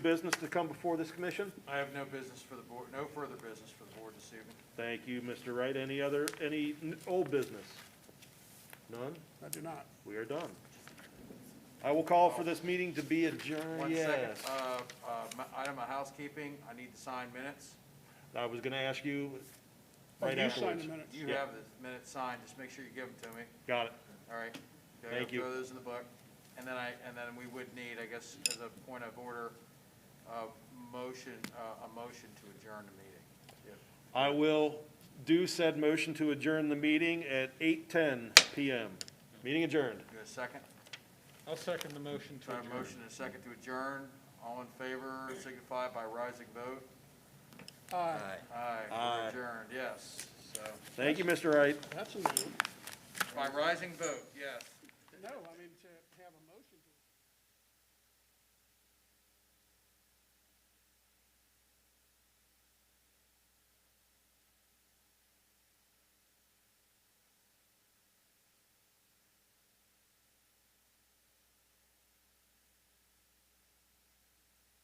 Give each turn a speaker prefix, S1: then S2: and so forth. S1: business to come before this commission?
S2: I have no business for the board, no further business for the board this evening.
S1: Thank you, Mr. Wright. Any other, any n- old business? None?
S3: I do not.
S1: We are done. I will call for this meeting to be adjourned,
S2: One second,
S1: yes.
S2: uh, uh, my- item of housekeeping, I need to sign minutes.
S1: I was gonna ask you
S3: Oh,
S1: right
S3: you sign
S1: afterwards.
S3: the minutes.
S2: You
S1: Yeah.
S2: have the minutes signed, just make sure you give them to me,
S1: Got it.
S2: all right? Go-
S1: Thank you.
S2: Throw those in the book. And then I, and then we would need, I guess, as a point of order, uh, motion, uh, a motion to adjourn the meeting.
S1: I will do said motion to adjourn the meeting at eight ten PM. Meeting adjourned.
S2: You got a second?
S4: I'll second the motion
S2: So I have a motion and a second to adjourn. All in favor, signify by rising vote.
S3: Aye.
S2: Aye,
S1: Aye.
S2: we're adjourned, yes. So,
S1: Thank you, Mr. Wright.
S3: That's a new, one.
S2: by rising vote, yes.
S3: no, I mean.